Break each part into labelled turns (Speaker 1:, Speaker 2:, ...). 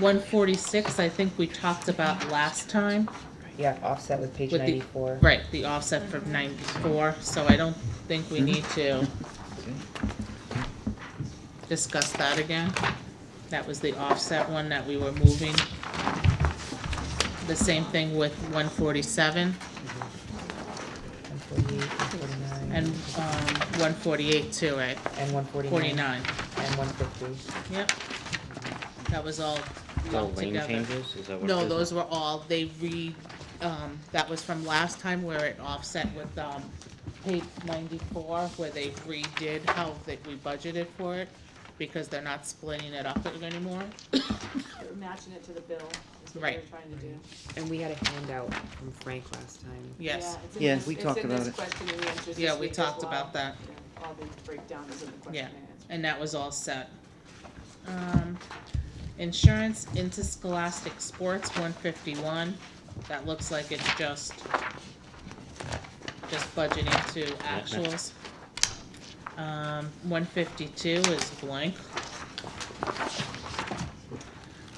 Speaker 1: One forty-six, I think we talked about last time,
Speaker 2: Yeah, offset with page
Speaker 1: With the-
Speaker 2: ninety-four.
Speaker 1: right, the offset from ninety-four, so I don't think we need to discuss that again. That was the offset one that we were moving. The same thing with one forty-seven
Speaker 2: 148, 149,
Speaker 1: and, um, one forty-eight too, right?
Speaker 2: And one forty-nine.
Speaker 1: Forty-nine,
Speaker 2: And one fifty.
Speaker 1: yep. That was all
Speaker 3: All
Speaker 1: lumped
Speaker 3: lane
Speaker 1: together.
Speaker 3: changes, is that what it is?
Speaker 1: No, those were all, they re, um, that was from last time where it offset with, um, page ninety-four, where they redid how that we budgeted for it, because they're not splitting it up anymore.
Speaker 4: matching it to the bill, is what
Speaker 1: Right.
Speaker 4: they're trying to do.
Speaker 2: And we had a handout from Frank last time.
Speaker 1: Yes,
Speaker 4: Yeah, it's in
Speaker 5: Yeah,
Speaker 4: this-
Speaker 5: we talked about it.
Speaker 4: It's in this question and answers this
Speaker 1: yeah, we
Speaker 4: week as
Speaker 1: talked
Speaker 4: well.
Speaker 1: about that,
Speaker 4: Yeah, All the breakdown is in the question
Speaker 1: Yeah.
Speaker 4: and answer.
Speaker 1: and that was all set. Um, insurance interscholastic sports, one fifty-one, that looks like it's just, just budgeting to actuals. Um, one fifty-two is blank.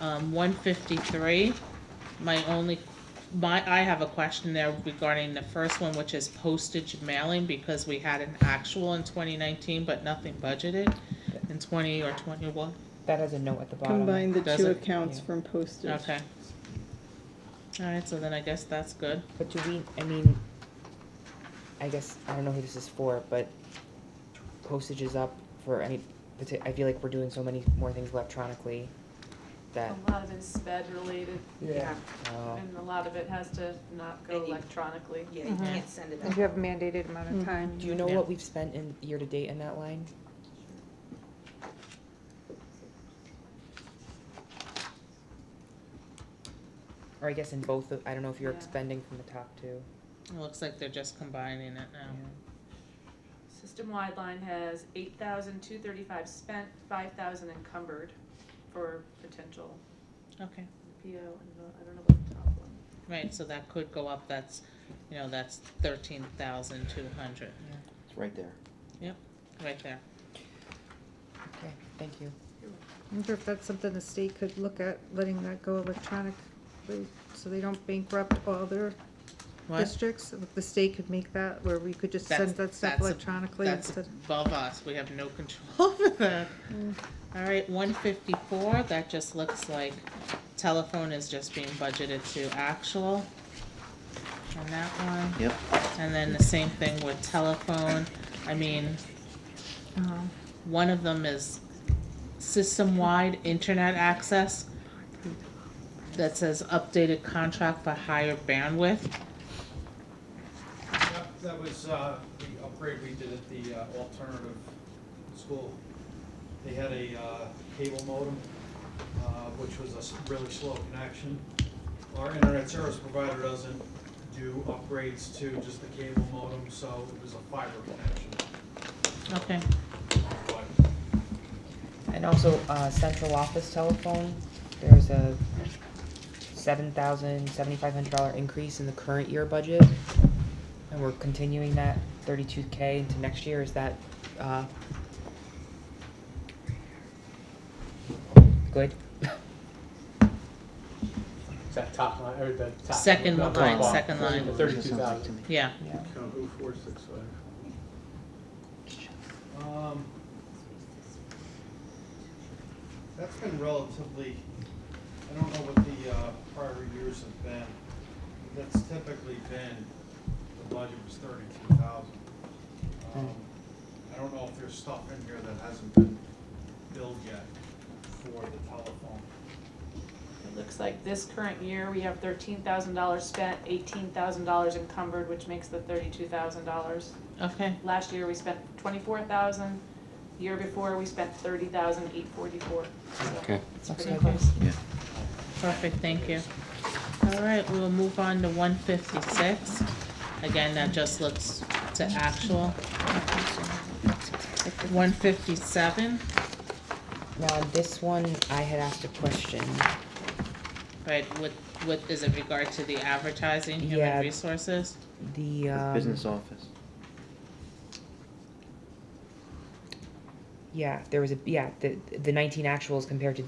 Speaker 1: Um, one fifty-three, my only, my, I have a question there regarding the first one, which is postage mailing, because we had an actual in twenty nineteen, but nothing budgeted in twenty or twenty-one,
Speaker 2: That has a note at the bottom.
Speaker 6: Combine the
Speaker 1: Does
Speaker 6: two
Speaker 1: it?
Speaker 6: accounts
Speaker 2: Yeah.
Speaker 6: from postage.
Speaker 1: okay. Alright, so then I guess that's good.
Speaker 2: But do we, I mean, I guess, I don't know who this is for, but postage is up for any, parti- I feel like we're doing so many more things electronically that,
Speaker 4: A lot of it's sped related.
Speaker 7: Yeah.
Speaker 2: oh,
Speaker 4: And a lot of it has to not go
Speaker 8: Maybe.
Speaker 4: electronically.
Speaker 8: Yeah, you can't send it out.
Speaker 9: If you have a mandated amount of time.
Speaker 2: do you know
Speaker 1: Yeah.
Speaker 2: what we've spent in, year-to-date in that line? Or I guess in both of, I don't know if you're
Speaker 4: Yeah.
Speaker 2: expending from the top two.
Speaker 1: It looks like they're just combining it now.
Speaker 4: System-wide line has eight thousand, two thirty-five spent, five thousand encumbered for potential
Speaker 1: Okay,
Speaker 4: PO, and the- I don't know about the top one.
Speaker 1: right, so that could go up, that's, you know, that's thirteen thousand two hundred,
Speaker 5: It's right there.
Speaker 1: right there.
Speaker 2: Okay, thank you.
Speaker 9: I wonder if that's something the state could look at, letting that go electronically, so they don't bankrupt all their
Speaker 1: What?
Speaker 9: districts. If The state could make that, where we could just
Speaker 1: That's-
Speaker 9: send that stuff
Speaker 1: that's a-
Speaker 9: electronically
Speaker 1: That's
Speaker 9: instead.
Speaker 1: above us, we have no control over that. Alright, one fifty-four, that just looks like telephone is just being budgeted to actual. On that one.
Speaker 5: Yep.
Speaker 1: And then the same thing with telephone, I mean, um, one of them is system-wide internet access that says updated contract for higher bandwidth.
Speaker 7: Yep, That was uh, the upgrade we did at the uh, alternative school. They had a uh, cable modem, uh, which was a s- really slow connection. Our internet service provider doesn't do upgrades to just the cable modem, so it was a fiber connection.
Speaker 1: Okay,
Speaker 7: But
Speaker 2: And also, uh, central office telephone, there's a seven thousand, seventy-five hundred dollar increase in the current year budget. And we're continuing that thirty-two K into next year, is that, uh, good?
Speaker 10: It's that top line, or the top.
Speaker 1: Second
Speaker 10: the top
Speaker 1: line, second line.
Speaker 10: The
Speaker 5: That
Speaker 10: thirty-two
Speaker 5: sounds like to
Speaker 10: thousand.
Speaker 5: me.
Speaker 1: yeah,
Speaker 2: Yeah.
Speaker 7: Account oh four six five. Um. That's been relatively, I don't know what the, uh, prior years have been, but that's typically been, the budget was thirty-two thousand. Um, I don't know if there's stuff in here that hasn't been billed yet for the telephone.
Speaker 4: It looks like this current year, we have thirteen thousand dollars spent, eighteen thousand dollars encumbered, which makes the thirty-two thousand dollars.
Speaker 1: okay.
Speaker 4: Last year, we spent twenty-four thousand, year before, we spent thirty thousand, eight forty-four.
Speaker 3: Okay.
Speaker 4: It's
Speaker 2: Looks
Speaker 4: pretty
Speaker 2: like
Speaker 4: close.
Speaker 7: Um,
Speaker 1: Perfect, thank you. All right, we'll move on to one fifty-six. Again, that just looks to actual. One fifty-seven,
Speaker 2: Now, this one, I had asked a question,
Speaker 1: right, with, with, is it regard to the advertising,
Speaker 2: Yeah.
Speaker 1: human resources?
Speaker 2: the, um.
Speaker 5: Business office.
Speaker 2: Yeah, there was a, yeah, the, the nineteen actuals compared to